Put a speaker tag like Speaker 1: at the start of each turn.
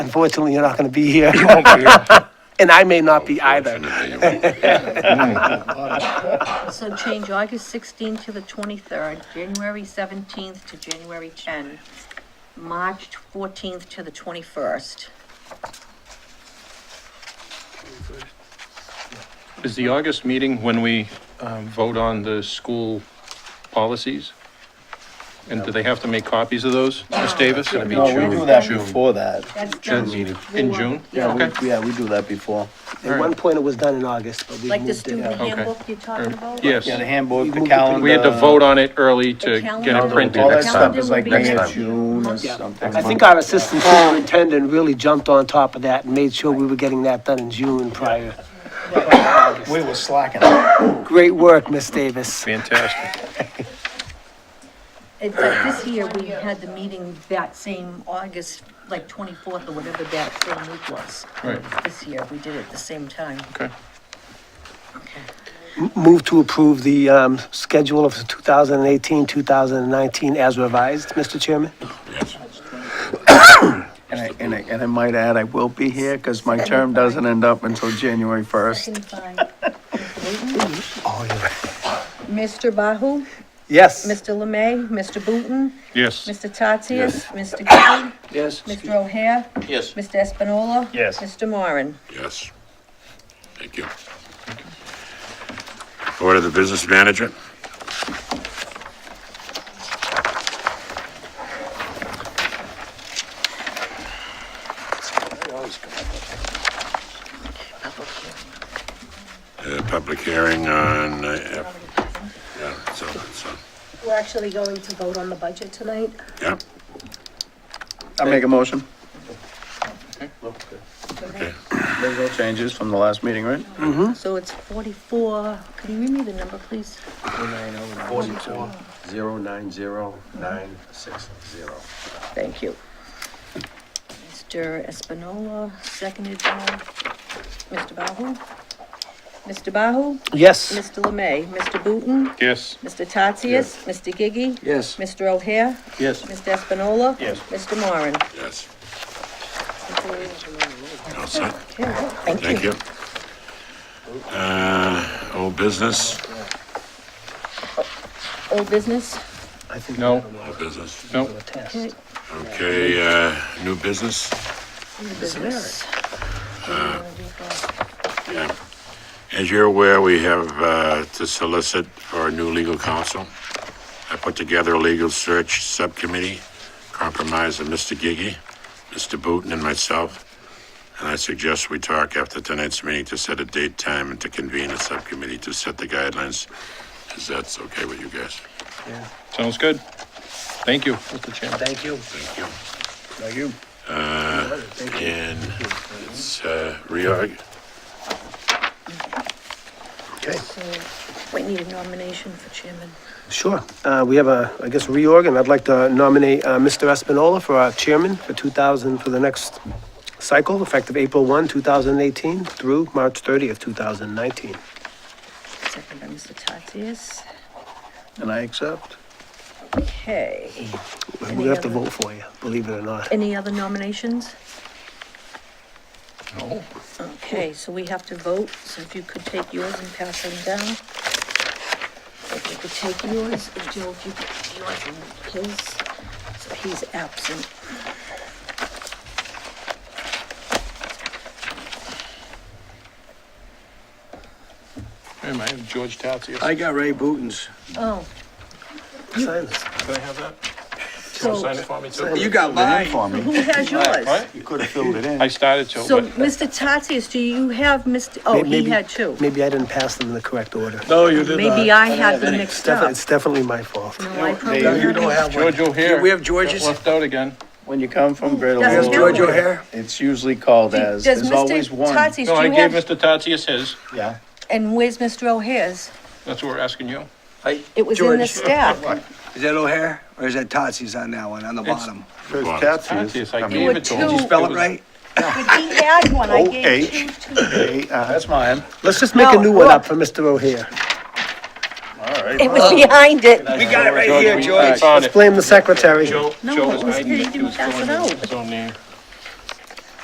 Speaker 1: Unfortunately, you're not going to be here,
Speaker 2: You won't be here.
Speaker 1: and I may not be either.
Speaker 3: So change August 16th to the 23rd, January 17th to January 10, March 14th to the 21st.
Speaker 2: Is the August meeting when we um, vote on the school policies? And do they have to make copies of those, Ms. Davis? It'd be
Speaker 4: Uh, No, Oh, we
Speaker 2: June-
Speaker 4: do that
Speaker 2: June.
Speaker 4: before that.
Speaker 3: That's
Speaker 2: June
Speaker 3: done.
Speaker 2: meeting. In June?
Speaker 4: Yeah,
Speaker 2: Okay.
Speaker 4: we, yeah, we do that before.
Speaker 1: At one point, it was done in August, but we
Speaker 3: Like the
Speaker 1: moved it.
Speaker 3: student
Speaker 1: out.
Speaker 2: Okay. Er,
Speaker 3: handbook you're talking about?
Speaker 2: Yes.
Speaker 4: Yeah, the
Speaker 1: We
Speaker 4: handbook,
Speaker 1: moved
Speaker 4: the uh,
Speaker 1: it to-
Speaker 4: calendar.
Speaker 2: We had to vote on it early
Speaker 3: The
Speaker 2: to get
Speaker 3: calendar-
Speaker 2: it printed.
Speaker 4: All that
Speaker 3: the
Speaker 4: stuff is
Speaker 3: calendar
Speaker 4: like
Speaker 3: will be
Speaker 4: May or
Speaker 3: next
Speaker 4: June or
Speaker 3: month.
Speaker 4: something.
Speaker 1: I think our assistant superintendent really jumped on top of that and made sure we were getting that done in June prior.
Speaker 4: We were slacking.
Speaker 1: Great work, Miss Davis.
Speaker 2: Fantastic.
Speaker 3: It's like this year, we had the meeting that same August, like 24th or whatever that same week was.
Speaker 2: Right,
Speaker 3: This year, we did it at the same time.
Speaker 2: okay.
Speaker 1: Move to approve the um, schedule of 2018-2019 as revised, Mr. Chairman?
Speaker 4: And I, and I, and I might add, I will be here because my term doesn't end up until January first.
Speaker 3: Second by Mr. Wooten. Mr. Bahu,
Speaker 1: Yes.
Speaker 3: Mr. Lemay, Mr. Booton,
Speaker 2: Yes.
Speaker 3: Mr. Tatsias, Mr. Gillen,
Speaker 4: Yes.
Speaker 3: Mr. O'Hare. Yes. Mr. Espinola.
Speaker 4: Yes.
Speaker 3: Mr. Moran.
Speaker 5: Yes. Thank you. Order the business manager. Uh, Public hearing on, uh, F- yeah, so, so,
Speaker 6: We're actually going to vote on the budget tonight.
Speaker 5: yeah,
Speaker 4: I make a motion.
Speaker 5: okay.
Speaker 4: There's no changes from the last meeting, right?
Speaker 3: So it's 44, could you read me the number, please?
Speaker 7: Forty-two, zero nine zero, nine six zero.
Speaker 3: Thank you. Mr. Espinola, seconded by Mr. Bahu. Mr. Bahu,
Speaker 1: Yes.
Speaker 3: Mr. Lemay, Mr. Booton,
Speaker 2: Yes.
Speaker 3: Mr. Tatsias, Mr. Gigi.
Speaker 7: Yes.
Speaker 3: Mr. O'Hare,
Speaker 7: Yes.
Speaker 3: Mr. Espinola.
Speaker 4: Yes.
Speaker 3: Mr. Moran.
Speaker 5: Yes. All set. Thank
Speaker 3: Thank
Speaker 5: you. Uh, old business,
Speaker 3: Old business?
Speaker 2: No,
Speaker 5: old business.
Speaker 2: no.
Speaker 3: Okay.
Speaker 5: Okay, uh, new business?
Speaker 3: Business.
Speaker 5: As you're aware, we have uh, to solicit for a new legal counsel. I put together a legal search subcommittee comprised of Mr. Gigi, Mr. Booton, and myself. And I suggest we talk after tonight's meeting to set a date, time, and to convene a subcommittee to set the guidelines. Is that okay with you guys?
Speaker 2: Sounds good. Thank you, Mr. Chairman.
Speaker 1: Thank you.
Speaker 5: Thank you. Uh,
Speaker 4: Thank you.
Speaker 5: And it's uh, reorg.
Speaker 3: So we need a nomination for chairman.
Speaker 1: Sure. Uh, We have a, I guess, reorg, and I'd like to nominate uh, Mr. Espinola for our chairman for 2000, for the next cycle, effective April 1, 2018 through March 30th, 2019.
Speaker 3: Second by Mr. Tatsias.
Speaker 4: And I accept.
Speaker 3: Okay.
Speaker 1: We're
Speaker 3: Any
Speaker 1: gonna have to
Speaker 3: other-
Speaker 1: vote for you, believe it or not.
Speaker 3: Any other nominations? No. Okay, so we have to vote, so if you could take yours and pass them down. If you could take yours, and Joe, if you could take yours and his, so he's absent.
Speaker 2: Hey, man, George Tatsias.
Speaker 7: I got Ray Booton's.
Speaker 3: Oh,
Speaker 1: Sign this.
Speaker 2: Can I have that?
Speaker 3: so
Speaker 2: Sign it for me too?
Speaker 7: You
Speaker 4: Then
Speaker 7: got mine.
Speaker 4: for me.
Speaker 3: who has yours?
Speaker 2: What?
Speaker 4: You could have filled it in.
Speaker 2: I started to,
Speaker 3: So,
Speaker 2: but.
Speaker 3: Mr. Tatsias, do you have Mr., oh,
Speaker 1: May-
Speaker 3: he
Speaker 1: maybe-
Speaker 3: had two.
Speaker 1: Maybe I didn't pass them in the correct order.
Speaker 7: No, you
Speaker 3: Maybe I had them
Speaker 1: It's
Speaker 3: mixed
Speaker 1: defi-
Speaker 3: up.
Speaker 1: It's definitely my fault.
Speaker 3: No, I probably
Speaker 4: Dave,
Speaker 7: You
Speaker 3: had
Speaker 7: don't
Speaker 3: them.
Speaker 7: have one.
Speaker 2: George O'Hare.
Speaker 7: We have George's?
Speaker 2: got Left out again.
Speaker 4: When you come from Great
Speaker 3: That's
Speaker 7: Is
Speaker 3: No.
Speaker 7: George
Speaker 4: Olympic,
Speaker 7: O'Hare?
Speaker 4: it's usually called as,
Speaker 3: Does
Speaker 4: there's always
Speaker 3: Mr.
Speaker 4: one.
Speaker 3: Tatsias,
Speaker 2: No, I
Speaker 3: do you
Speaker 2: gave
Speaker 3: have,
Speaker 2: Mr. Tatsias his.
Speaker 4: Yeah.
Speaker 3: and where's Mr. O'Hare's?
Speaker 2: That's what we're asking you.
Speaker 7: Hey,
Speaker 3: It was in the
Speaker 7: George.
Speaker 3: staff.
Speaker 7: Is that O'Hare or is that Tatsi's on that one, on the bottom?
Speaker 2: Tatsias, I
Speaker 3: There
Speaker 2: gave
Speaker 3: were
Speaker 2: it to
Speaker 3: two.
Speaker 2: him.
Speaker 3: Did you
Speaker 7: Spell it right?
Speaker 3: But he had one, I gave two to him.
Speaker 4: Hey, uh, that's mine.
Speaker 1: Let's just make a
Speaker 3: No,
Speaker 1: new one up
Speaker 3: look.
Speaker 1: for Mr. O'Hare.
Speaker 3: It was behind it.
Speaker 7: We got it right
Speaker 2: George,
Speaker 7: here,
Speaker 2: we- I
Speaker 7: George.
Speaker 2: found
Speaker 1: Let's
Speaker 2: it.
Speaker 1: blame the secretary.
Speaker 2: Joe,
Speaker 3: No,
Speaker 2: Joe was
Speaker 3: it was
Speaker 2: hiding
Speaker 3: hidden.
Speaker 2: it. He was
Speaker 3: That's
Speaker 2: going
Speaker 3: it
Speaker 2: in
Speaker 3: out.
Speaker 2: his own name.